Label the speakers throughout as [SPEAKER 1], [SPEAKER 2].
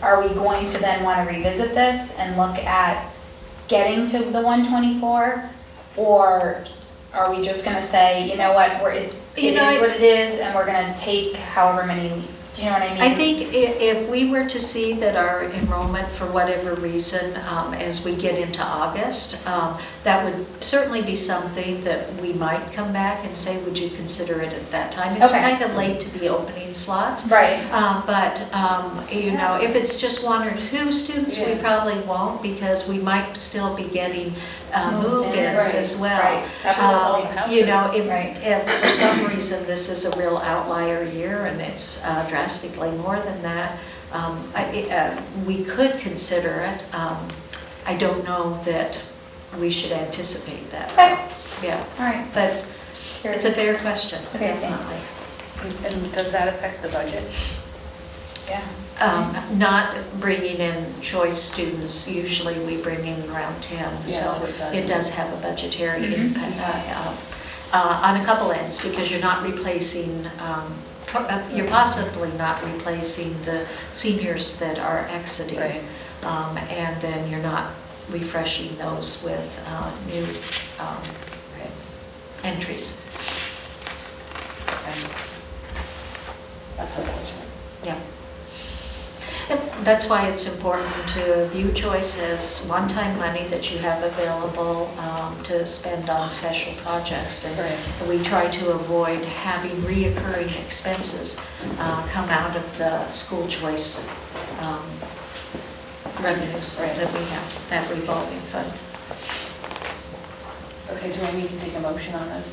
[SPEAKER 1] are we going to then want to revisit this and look at getting to the 124? Or are we just going to say, you know what, we're, it
[SPEAKER 2] You
[SPEAKER 1] it
[SPEAKER 2] know, I-
[SPEAKER 1] is what it is, and we're going to take however many, do you know what I mean?
[SPEAKER 2] I think i- if we were to see that our enrollment, for whatever reason, um, as we get into August, um, that would certainly be something that we might come back and say, would you consider it at that time? It's
[SPEAKER 1] Okay.
[SPEAKER 2] kind of late to be opening slots.
[SPEAKER 1] Right.
[SPEAKER 2] Um, But, um, you know, if it's just one or two students, we
[SPEAKER 3] Yeah.
[SPEAKER 2] probably won't because we might still be getting uh,
[SPEAKER 1] Move-ins,
[SPEAKER 2] move-ins as
[SPEAKER 1] right,
[SPEAKER 2] well.
[SPEAKER 1] right.
[SPEAKER 3] That's
[SPEAKER 2] Um,
[SPEAKER 3] what all the houses-
[SPEAKER 2] You know, if,
[SPEAKER 1] Right.
[SPEAKER 2] if for some reason this is a real outlier year and it's uh, drastically more than that, um, I- it, uh, we could consider it. Um, I don't know that we should anticipate that.
[SPEAKER 1] Okay.
[SPEAKER 2] Yeah,
[SPEAKER 1] All right.
[SPEAKER 2] but it's a fair question,
[SPEAKER 1] Okay, thanks.
[SPEAKER 2] definitely.
[SPEAKER 3] And does that affect the budget?
[SPEAKER 1] Yeah.
[SPEAKER 2] Um, Not bringing in choice students, usually we bring in around 10,
[SPEAKER 3] Yeah,
[SPEAKER 2] so
[SPEAKER 3] we've done
[SPEAKER 2] it
[SPEAKER 3] it.
[SPEAKER 2] does have a budgetary
[SPEAKER 1] Mhm.
[SPEAKER 2] impact uh, uh, uh, on a couple ends, because you're not replacing, um, po- uh, you're possibly not replacing the seniors that are
[SPEAKER 3] Right.
[SPEAKER 2] exiting. Um, And then you're not refreshing those with uh, new um, entries.
[SPEAKER 3] Okay. That's unfortunate.
[SPEAKER 2] Yeah. And That's why it's important to view choice as one-time money that you have available um, to spend on special projects. And
[SPEAKER 3] Right.
[SPEAKER 2] we try to avoid having reoccurring expenses uh, come out of the school choice um, revenues
[SPEAKER 3] Right.
[SPEAKER 2] that we have, that revolving fund.
[SPEAKER 3] Okay, do I need to take a motion on this?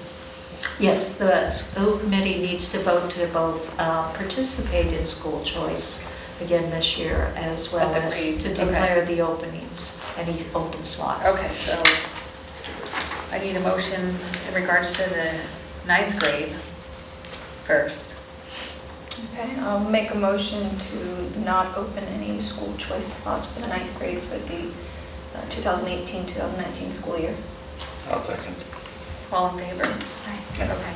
[SPEAKER 2] Yes, the school committee needs to vote to both uh, participate in school choice again this year, as well
[SPEAKER 3] But the
[SPEAKER 2] as
[SPEAKER 3] pre-
[SPEAKER 2] to
[SPEAKER 3] okay.
[SPEAKER 2] declare the openings, any open slots.
[SPEAKER 3] Okay, so I need a motion in regards to the ninth grade first.
[SPEAKER 4] Okay, I'll make a motion to not open any school choice spots for the ninth grade for the uh, 2018-2019 school year.
[SPEAKER 5] I'll second.
[SPEAKER 3] All in favor? Okay.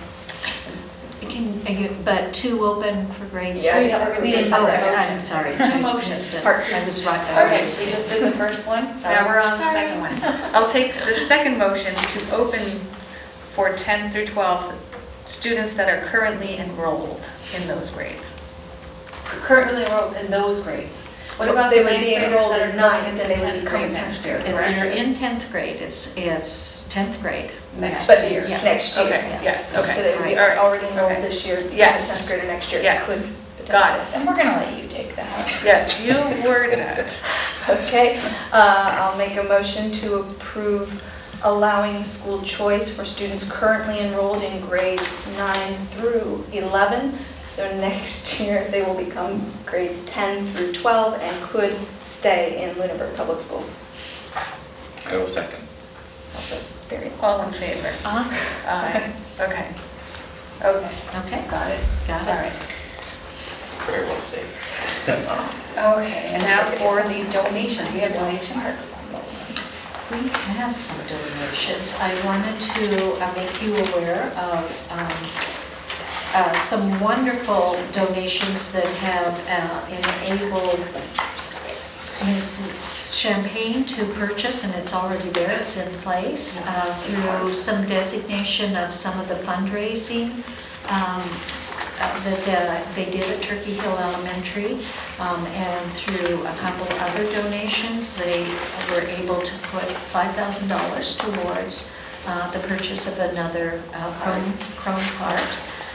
[SPEAKER 2] You can- are you- But two open for grade
[SPEAKER 4] Yeah,
[SPEAKER 2] three?
[SPEAKER 4] yeah,
[SPEAKER 1] we didn't
[SPEAKER 2] Oh,
[SPEAKER 1] have that
[SPEAKER 2] I'm
[SPEAKER 1] motion.
[SPEAKER 2] sorry.
[SPEAKER 3] No
[SPEAKER 2] I
[SPEAKER 3] motion.
[SPEAKER 2] missed it.
[SPEAKER 3] Part two.
[SPEAKER 2] I was right. I
[SPEAKER 3] Okay,
[SPEAKER 2] was-
[SPEAKER 3] we just did the first one, now we're on the
[SPEAKER 1] Sorry.
[SPEAKER 3] second one. I'll take the second motion to open for 10 through 12 students that are currently enrolled in those grades. Currently enrolled in those grades. What about the
[SPEAKER 4] They would
[SPEAKER 3] ninth
[SPEAKER 4] be
[SPEAKER 3] graders
[SPEAKER 4] enrolled
[SPEAKER 3] that are
[SPEAKER 4] in
[SPEAKER 3] not
[SPEAKER 4] ninth,
[SPEAKER 3] in
[SPEAKER 4] then
[SPEAKER 3] the
[SPEAKER 4] they would
[SPEAKER 3] 10th
[SPEAKER 4] become
[SPEAKER 3] grade next year?
[SPEAKER 4] tenth
[SPEAKER 2] If
[SPEAKER 3] correct?
[SPEAKER 2] you're in 10th grade, it's, it's 10th grade.
[SPEAKER 3] Next
[SPEAKER 4] But
[SPEAKER 3] year.
[SPEAKER 2] Yeah.
[SPEAKER 4] Next year.
[SPEAKER 3] Okay, yes, okay.
[SPEAKER 4] So they would be
[SPEAKER 3] All right,
[SPEAKER 4] already enrolled
[SPEAKER 3] okay.
[SPEAKER 4] this year. the
[SPEAKER 3] Yes.
[SPEAKER 4] 10th grade or next year
[SPEAKER 3] Yes.
[SPEAKER 4] could.
[SPEAKER 3] Got it.
[SPEAKER 1] And we're going to let you take that.
[SPEAKER 3] Yes, you were that.
[SPEAKER 4] Okay, uh, I'll make a motion to approve allowing school choice for students currently enrolled in grades 9 through 11. So next year, they will become grades 10 through 12 and could stay in Lunenburg Public Schools.
[SPEAKER 5] I will second.
[SPEAKER 4] Also very important.
[SPEAKER 3] All in favor?
[SPEAKER 2] Uh,
[SPEAKER 3] Aye. Okay. Okay,
[SPEAKER 2] Okay,
[SPEAKER 3] got it.
[SPEAKER 2] got
[SPEAKER 3] All
[SPEAKER 2] it.
[SPEAKER 3] right.
[SPEAKER 5] Very well stated. Oh,
[SPEAKER 3] Okay, and now for the donations, we have donations?
[SPEAKER 2] We have some donations. I wanted to uh, make you aware of um, uh, some wonderful donations that have uh, enabled Mrs. Champagne to purchase, and it's already there, it's in place, uh, through some designation of some of the fundraising um, uh, that uh, they did at Turkey Hill Elementary, um, and through a couple other donations, they were able to put $5,000 towards uh, the purchase of another uh, Chrome Chrome cart.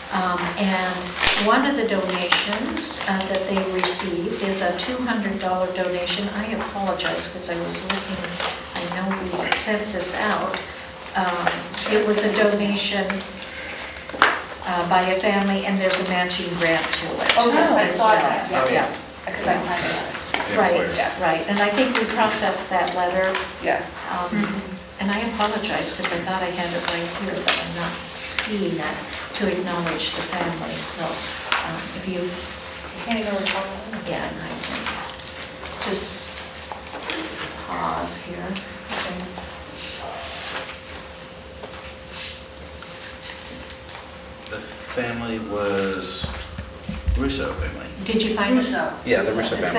[SPEAKER 2] Um, And one of the donations uh, that they received is a $200 donation. I apologize because I was looking, I know we sent this out. Um, It was a donation uh, by a family, and there's a matching grant to it.
[SPEAKER 3] Oh, yes, I
[SPEAKER 2] as
[SPEAKER 3] saw
[SPEAKER 2] well.
[SPEAKER 3] that.
[SPEAKER 5] Oh, yes.
[SPEAKER 3] Because I have that.
[SPEAKER 2] Right,
[SPEAKER 5] Employer.
[SPEAKER 2] right. And I think we processed that letter,
[SPEAKER 3] Yes.
[SPEAKER 2] um,
[SPEAKER 3] Mm-hmm.
[SPEAKER 2] and I apologize because I thought I had it right here, but I'm not seeing that to acknowledge the family. So um, if you
[SPEAKER 3] I can't even recall.
[SPEAKER 2] again, I can just pause here.
[SPEAKER 5] The family was Russo family.
[SPEAKER 2] Did you find it?
[SPEAKER 5] Yeah, the Russo family.